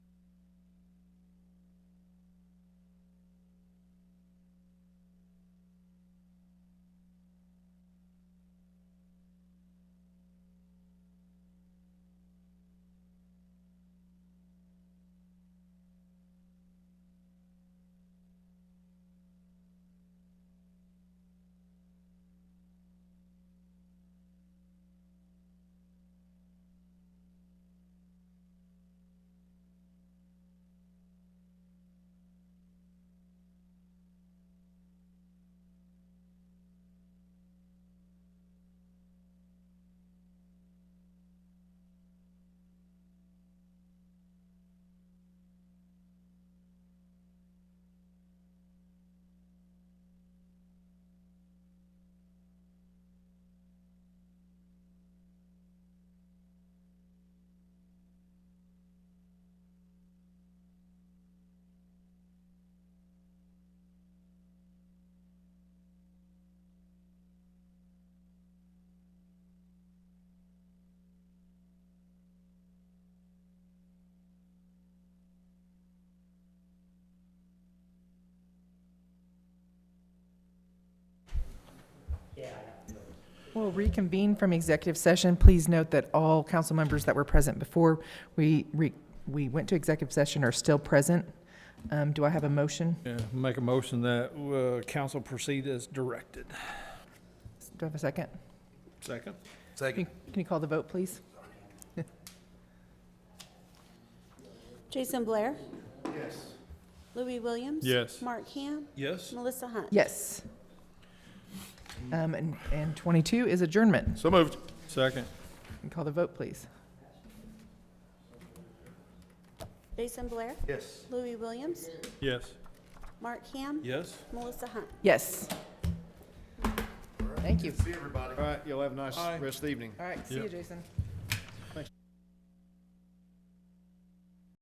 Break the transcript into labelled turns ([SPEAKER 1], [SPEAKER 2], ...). [SPEAKER 1] We'll reconvene from executive session. Please note that all council members that were present before we, re- we went to executive session are still present. Um, Do I have a motion?
[SPEAKER 2] Yeah, make a motion that uh, council proceed as directed.
[SPEAKER 1] Do I have a second?
[SPEAKER 2] Second.
[SPEAKER 1] Can
[SPEAKER 3] Second.
[SPEAKER 1] can you call the vote, please?
[SPEAKER 4] Jason Blair. Yes. Louis Williams.
[SPEAKER 2] Yes.
[SPEAKER 4] Mark Ham.
[SPEAKER 2] Yes.
[SPEAKER 4] Melissa Hunt.
[SPEAKER 1] Yes. Um, And and 22 is adjournment.
[SPEAKER 2] So moved. Second.
[SPEAKER 1] Can you Call the vote, please.
[SPEAKER 4] Jason Blair.
[SPEAKER 3] Yes.
[SPEAKER 4] Louis Williams.
[SPEAKER 2] Yes.
[SPEAKER 4] Mark Ham.
[SPEAKER 2] Yes.
[SPEAKER 4] Melissa Hunt.
[SPEAKER 1] Yes. Thank you.
[SPEAKER 3] See everybody.
[SPEAKER 5] All right, you'll have a nice rest of the evening.
[SPEAKER 1] All right, see you,
[SPEAKER 2] Yep.
[SPEAKER 1] Jason.